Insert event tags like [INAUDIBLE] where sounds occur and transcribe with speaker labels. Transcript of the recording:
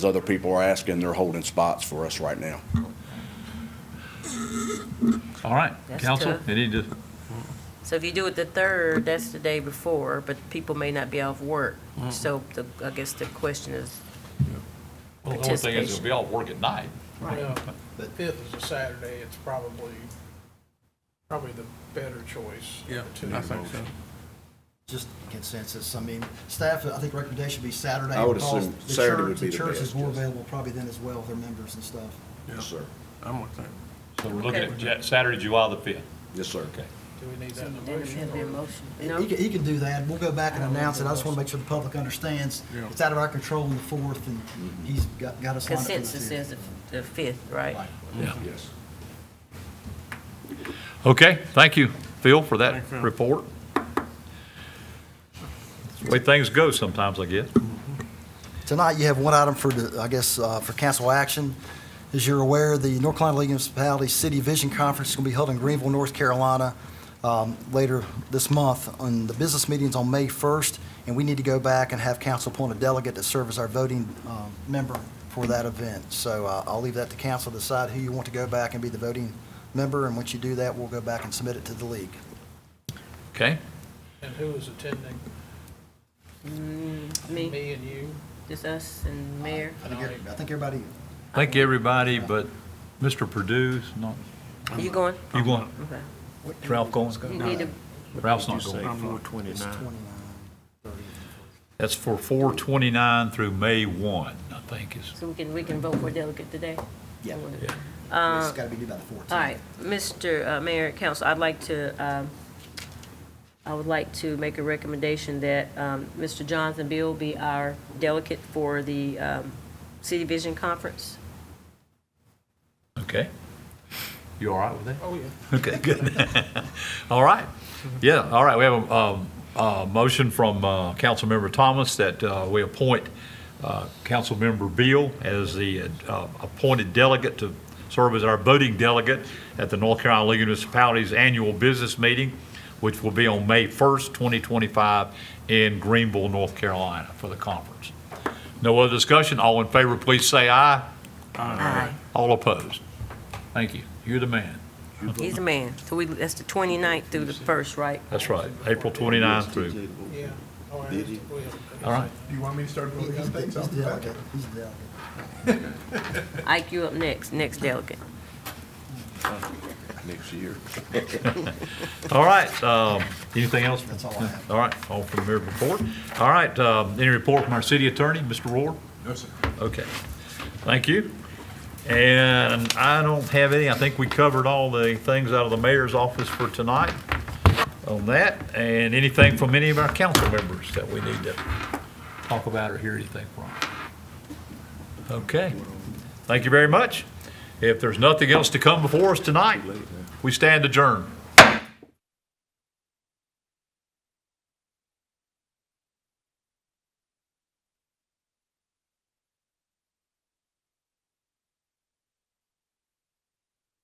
Speaker 1: As other people are asking, they're holding spots for us right now.
Speaker 2: All right,
Speaker 3: That's
Speaker 2: council,
Speaker 3: tough.
Speaker 2: any, dis-
Speaker 3: So if you do it the third, that's the day before, but people may not be off work. So the, I guess the question is,
Speaker 2: well, the only thing is
Speaker 3: Participation.
Speaker 2: it'll be all work at night.
Speaker 4: Well, the fifth is a Saturday, it's probably, probably the better choice. Yeah, I think so.
Speaker 5: just consensus. I mean, staff, I think recommendation would be Saturday.
Speaker 1: I would
Speaker 5: because
Speaker 1: assume
Speaker 5: the
Speaker 1: Saturday
Speaker 5: church-
Speaker 1: would be the
Speaker 5: church is
Speaker 1: best,
Speaker 5: more
Speaker 1: yes.
Speaker 5: available probably then as well, with their members and stuff.
Speaker 1: Yes, sir.
Speaker 6: I'm with that.
Speaker 2: So we're looking
Speaker 3: Okay.
Speaker 2: at Ja- Saturday, July the 5th.
Speaker 1: Yes, sir. Okay.
Speaker 4: Do we need that in the motion? or-
Speaker 5: He can, he can do that. We'll go back and announce it. I just want to make sure the public understands.
Speaker 6: Yeah.
Speaker 5: It's out of our control on the fourth, and he's got, got us lined up. for the
Speaker 3: consensus
Speaker 5: fifth.
Speaker 3: is the- the fifth, right?
Speaker 5: Right.
Speaker 1: Yes.
Speaker 2: Okay, thank you, Phil, for that
Speaker 6: Thanks, Phil.
Speaker 2: report. It's the way things go sometimes, I guess.
Speaker 5: Tonight, you have one item for, the- I guess, uh, for council action. As you're aware, the North Carolina League of Municipalities City Vision Conference is going to be held in Greenville, North Carolina, um, later this month. And the business meeting's on May 1st, and we need to go back and have council appoint a delegate to serve as our voting um, member for that event. So uh, I'll leave that to council to decide who you want to go back and be the voting member, and once you do that, we'll go back and submit it to the league.
Speaker 2: Okay,
Speaker 4: And who is attending?
Speaker 3: Mm, Me,
Speaker 4: Me and you?
Speaker 3: just us and mayor.
Speaker 5: I think every- I think everybody,
Speaker 2: thank you, everybody, but Mr. Purdue's not,
Speaker 3: Are you going?
Speaker 2: you going,
Speaker 3: Okay.
Speaker 2: is Ralph going?
Speaker 3: You need to,
Speaker 2: Ralph's not going.
Speaker 6: I'm with
Speaker 5: it's
Speaker 6: 29.
Speaker 5: 29, 30.
Speaker 2: That's for 429 through May 1, I think is.
Speaker 3: so we can, we can vote for delegate today?
Speaker 5: Yeah,
Speaker 2: Yeah.
Speaker 5: it's got to be due by the 14th.
Speaker 3: All right, Mr. uh, Mayor, Council, I'd like to, um, I would like to make a recommendation that um, Mr. Jonathan Bill be our delegate for the um, City Vision Conference.
Speaker 2: Okay. You all right with that?
Speaker 4: Oh, yeah.
Speaker 2: [LAUGHS] Okay, good. [LAUGHS] All right. Yeah, all right. We have a, um, a motion from, uh, Councilmember Thomas that, uh, we appoint, uh, Councilmember Beal as the, uh, appointed delegate to serve as our voting delegate at the North Carolina League of Municipalities Annual Business Meeting, which will be on May 1st, 2025 in Greenville, North Carolina for the conference. No other discussion? All in favor, please say aye.
Speaker 3: Aye.
Speaker 2: All opposed? Thank you. You're the man.
Speaker 3: He's a man. So we, that's the 29th through the 1st, right?
Speaker 2: That's right, April 29th through.
Speaker 4: Yeah. Oh, and we have-
Speaker 2: All right,
Speaker 7: Do you want me to start voting on
Speaker 5: He's the
Speaker 7: things off
Speaker 5: he's
Speaker 7: the
Speaker 5: the
Speaker 7: back?
Speaker 5: delegate, he's the delegate.
Speaker 3: Ike, you up next, next delegate.
Speaker 1: Next year.
Speaker 2: all right. um, Anything else?
Speaker 5: That's all I have.
Speaker 2: All right, all from the mayor's report. All right, um, any report from our city attorney, Mr. Ward?
Speaker 7: No, sir.
Speaker 2: Okay, thank you. And I don't have any, I think we covered all the things out of the mayor's office for tonight on that. And anything from any of our council members that we need to talk about or hear anything from. Okay, thank you very much. If there's nothing else to come before us tonight, we stand adjourned.